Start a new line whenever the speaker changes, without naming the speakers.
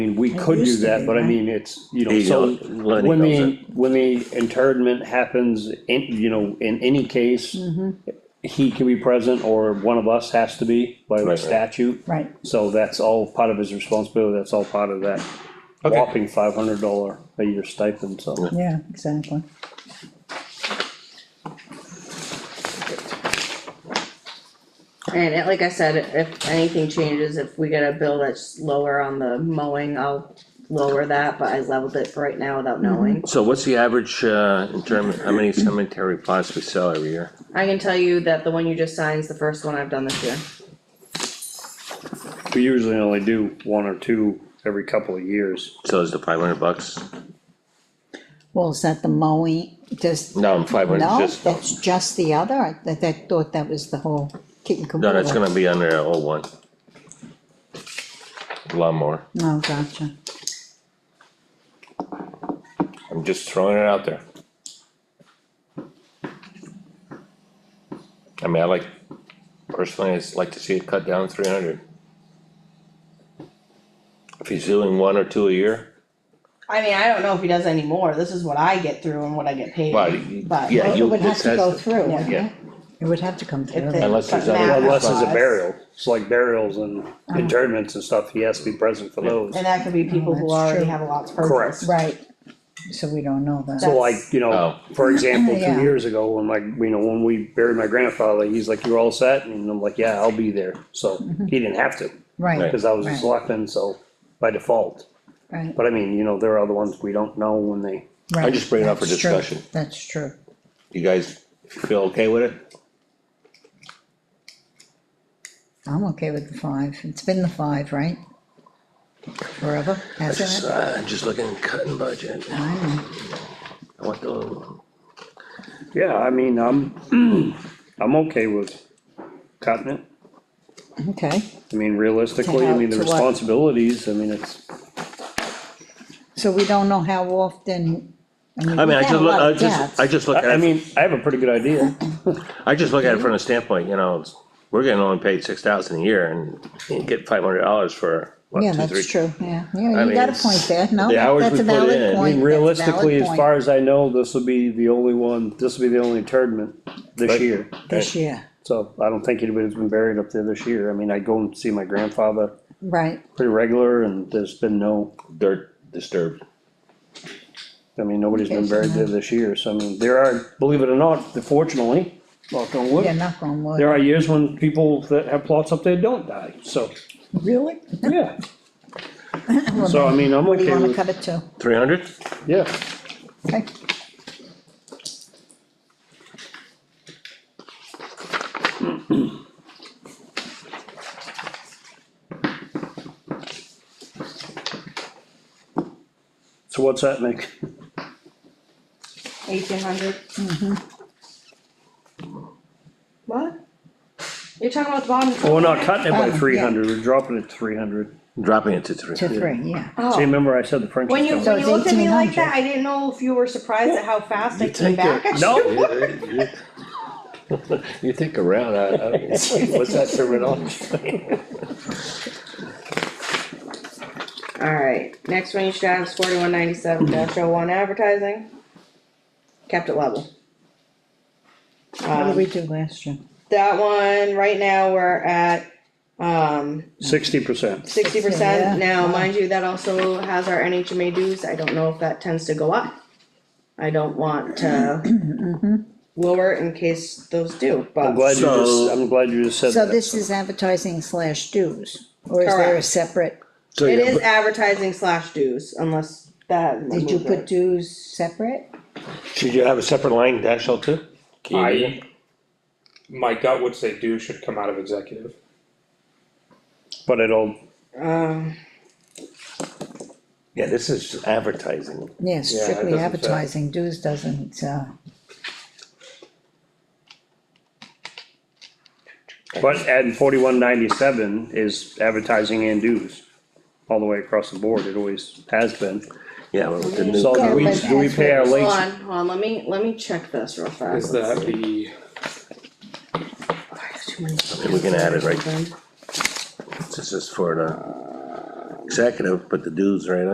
I mean, we could do
used to
that,
be,
but I
right?
mean, it's, you know,
He
so.
knows- Lenny
When
knows
the, when the internment happens, in, you know, in any case, he can be present or one of us has to be by
right.
statute.
Right,
So that's all part of his responsibility, that's all part of that
Okay.
whopping five hundred dollar a year stipend, so.
yeah, exactly.
And it- like I said, if anything changes, if we get a bill that's lower on the mowing, I'll lower that, but I leveled it for right now without knowing.
So what's the average, uh, in term, how many cemetery plots we sell every year?
I can tell you that the one you just signed is the first one I've done this year.
We usually only do one or two every couple of years.
So is the five hundred bucks?
Well, is that the mowing, just,
No, five
no,
hundred just,
that's just the other, I, I thought that was the whole kit and
no,
caboodle.
that's gonna be under the old one. Lawnmower,
Oh, gotcha,
I'm just throwing it out there. I mean, I like, personally, I'd like to see it cut down three hundred. If he's doing one or two a year,
I mean, I don't know if he does any more, this is what I get through and what I get paid,
Well,
but.
yeah,
Well,
you-
it would have
this
to
has
go
to-
through, wouldn't
yeah.
it? It would have to come through,
If they-
Unless there's
but
other-
Matt
Unless it's a
applies.
burial, it's like burials and internments and stuff, he has to be present for those.
And that could be people who
that's
already
true.
have a lot to
Correct.
purchase.
right, so we don't know that.
So like, you know, for example,
Yeah.
two years ago, when my, you know, when we buried my grandfather, he's like, you're all set, and I'm like, yeah, I'll be there, so he didn't have to,
Right,
cause I was a
Mm-hmm. Right.
selectman, so by default.
right,
But I mean, you know, there are other ones we don't know when they,
right.
just bring it up for
That's true.
discussion.
That's true,
you guys feel okay with it?
I'm okay with the five, it's been the five, right? Forever,
Just,
hasn't it?
uh, just looking at cutting budget,
I know.
I want the,
yeah, I mean, I'm, I'm okay with cutting it.
Okay,
I mean, realistically, I mean, the
To what?
responsibilities, I mean, it's,
so we don't know how often.
I mean, I just, look- I just, I just look
I, I
at it,
mean, I have a pretty good idea.
I just look at it from the standpoint, you know, it's- we're getting only paid six thousand a year and you get five hundred dollars for, what,
Yeah,
two, three?
that's true, yeah,
I
yeah, you
mean,
got a
it's-
point there, no,
the hours
that's
we
a
put in, I
valid
mean,
point. that's a
Realistically,
valid
as
point
far as I know, this will be the only one, this will be the only internment this
Right.
year.
This year,
So I don't think anybody's been buried up there this year. I mean, I go and see my grandfather
right,
pretty regular and there's been no,
Dirt disturbed.
I mean, nobody's been buried there this year. So I mean, there are, believe it or not, fortunately, knock on
yeah,
wood,
knock on wood,
Oh. there are years when people that have plots up there don't die, so,
really?
yeah. So I mean, I'm
What do you
okay
wanna
with,
cut it to?
Three hundred?
yeah,
Okay,
so what's that make?
Eighteen hundred? What? You're talking about the bottom.
Well, we're not cutting it
Oh,
by
yeah.
three hundred, we're dropping it to three hundred.
Dropping it to three.
to three, yeah,
Oh.
See, remember I said the French.
When you,
is
So
when
it's
you looked at me like
1800.
that, I didn't know if you were surprised at how fast I came
Take
back.
a-
I
No. You think around, I, I don't
coming. What's that terminology?
Alright, next one you should have is forty-one ninety-seven dash oh one advertising. Kept it level.
what did
Um,
we do last year?
that one, right now, we're at, um,
Sixty percent.
sixty percent.
Yeah.
Now, mind you, that also has our NHMA dues, I don't know if that tends to go up. I don't want to
Mm-hmm.
lower it in case those do,
I'm
but
glad you just,
So-
I'm glad you just said
So
that.
this is advertising slash dues, or is there a
Correct.
separate,
it is advertising slash dues, unless that.
did you put dues separate?
Should you have a separate line, dash L two?
I, my gut would say do should come out of executive.
But it'll,
Um,
Yeah, this is advertising.
Yeah,
it
strictly
doesn't say.
advertising, dues doesn't, uh,
but at forty-one ninety-seven is advertising and dues. All the way across the board, it always has been.
Yeah, well, the new.
So do we, do we pay our
hold
late,
on, hold on, let me, let me check this real fast.
Is that the,
Oh, I have too many
we can add it right-
things open.
This is for the executive, but the dude's right